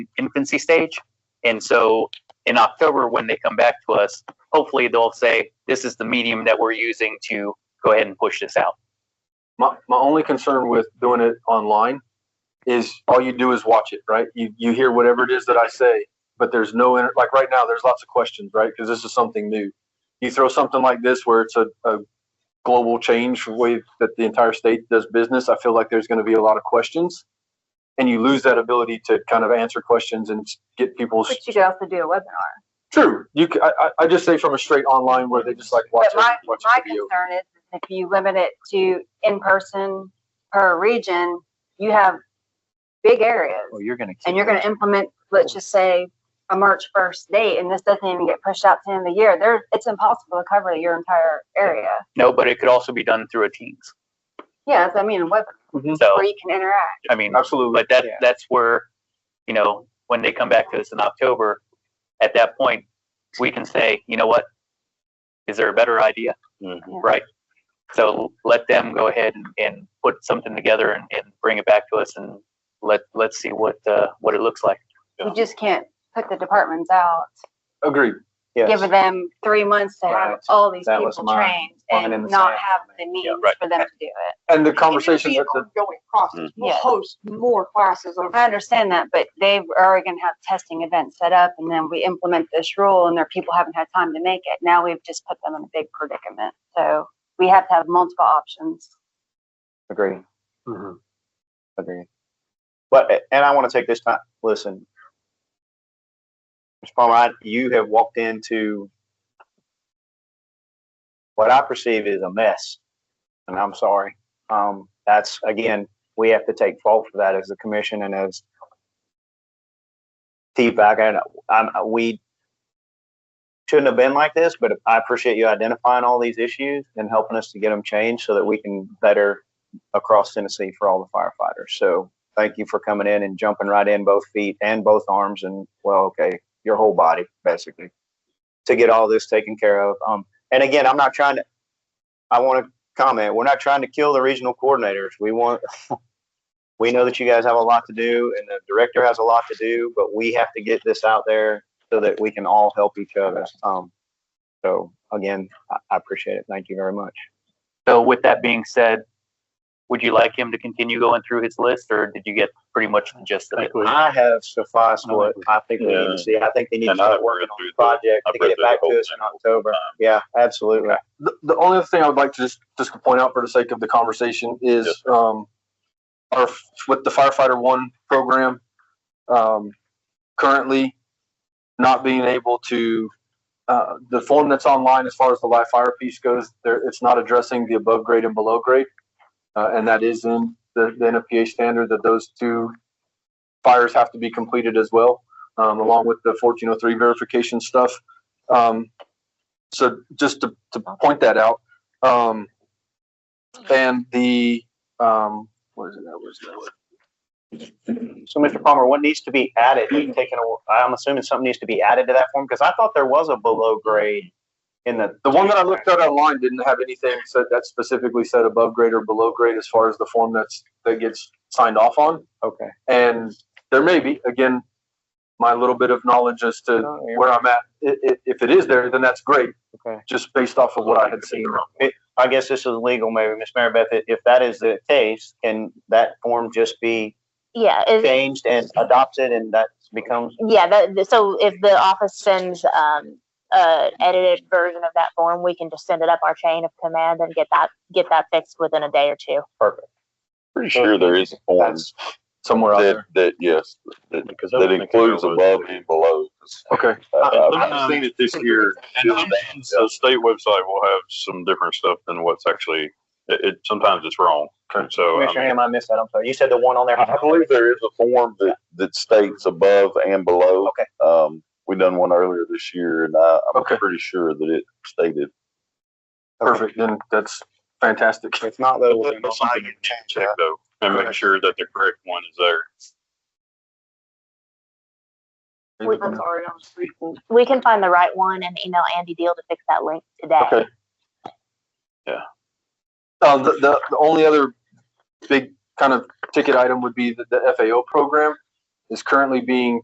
infancy stage. And so in October, when they come back to us, hopefully they'll say, this is the medium that we're using to go ahead and push this out. My, my only concern with doing it online is all you do is watch it, right? You, you hear whatever it is that I say, but there's no, inter- like right now, there's lots of questions, right? Because this is something new. You throw something like this where it's a, a global change for the way that the entire state does business, I feel like there's going to be a lot of questions. And you lose that ability to kind of answer questions and get people's But you could also do a webinar. true. You, c- I, I- I just say from a straight online where they just like watch, But a- my, watch my a video. concern is if you limit it to in-person per region, you have big areas. Well, Oh, you're gonna. and you're gonna implement, let's just say, a March first date, and this doesn't even get pushed out to the end of the year, there, it's impossible to cover your entire area. No, but it could also be done through a Teams. Yeah, that's, I mean, a web, So, where you can interact. I mean, Mm-hmm. Absolutely. but that, Yeah. that's where, you know, when they come back to us in October, at that point, we can say, you know what? Is there a better idea? Right? So let them go ahead and, and put something together and, and bring it back to us and let, let's see what, uh, what it looks like. You just can't put the departments out, Agreed. give them three months to have Right. all these That people was mine. trained Mine and in the not same. have the means right. for them to do it. And the It'll conversations be an that the, Ongoing process. Mm. We'll Yeah. host more classes over. I understand that, but they are gonna have testing events set up, and then we implement this rule, and their people haven't had time to make it. Now we've just put them in a big predicament, so we have to have multiple options. Agree. mm-hmm. Agree. But, and I want to take this time, listen. Mr. Palmer, I- you have walked into what I perceive is a mess, and I'm sorry. Um, that's, again, we have to take fault for that as the commission and as feedback. And I'm, we shouldn't have been like this, but I appreciate you identifying all these issues and helping us to get them changed so that we can better across Tennessee for all the firefighters. So thank you for coming in and jumping right in both feet and both arms and well, okay, your whole body basically to get all this taken care of. Um, and again, I'm not trying to. I want to comment. We're not trying to kill the regional coordinators. We want. We know that you guys have a lot to do, and the director has a lot to do, but we have to get this out there so that we can all help each other. Um, so again, I, I appreciate it. Thank you very much. So with that being said, would you like him to continue going through his list or did you get pretty much the gist of it? I have sufficed I what I think we need Yeah. to see. I think they need to And I start read working on the through the- project I to read get it through the back whole to us in thing. October. Yeah, absolutely. the, the only other thing I would like to just, just point out for the sake of the conversation is, Yes, um, our, with the firefighter one program, um, currently not being able to, uh, the form that's online as far as the live fire piece goes, there, it's not addressing the above grade and below grade. Uh, and that is in the, the NFPA standard that those two fires have to be completed as well, um, along with the fourteen oh three verification stuff. Um, so just to, to point that out, um, and the, um, what is it, that was, that was, So Mr. Palmer, what needs to be added, taken, I'm assuming something needs to be added to that form, because I thought there was a below grade in the. the one that I looked at online didn't have anything said that specifically said above grade or below grade as far as the form that's, that gets signed off on. Okay. And there may be, again, my little bit of knowledge as to Okay. where I'm at. I- i- if it is there, then that's great, just based off of what I had seen. I guess this is legal, maybe, Ms. Marybeth, i- if that is the case, can that form just be Yeah, it, changed and adopted and that becomes, yeah, that, so if the office sends, um, uh, edited version of that form, we can just send it up our chain of command and get that, get that fixed within a day or two. Pretty sure there is a form that's, Somewhere out that, there. that, yes, that, Because I that don't think I includes know above what- and below. Uh, Okay, I- I- I've seen it this year. Uh, And sometimes the state website will have some different stuff than what's actually, it, it, sometimes it's wrong. So, um, I Commissioner mean, Hamm, I missed that, I'm sorry. You said the one on there. Oh, I believe there is a form that, that states above and below. Okay. Um, we done one earlier this year and I, I'm Okay. pretty sure that it stated. perfect, then that's fantastic. If not, though, we'll that's something you need to check though, and make sure that the correct one is there. All I'm sorry, I'm speaking. We can find the right one and email Andy Deal to fix that link today. Okay. Uh, the, the, the only other big kind of ticket item would be that the FAO program is currently being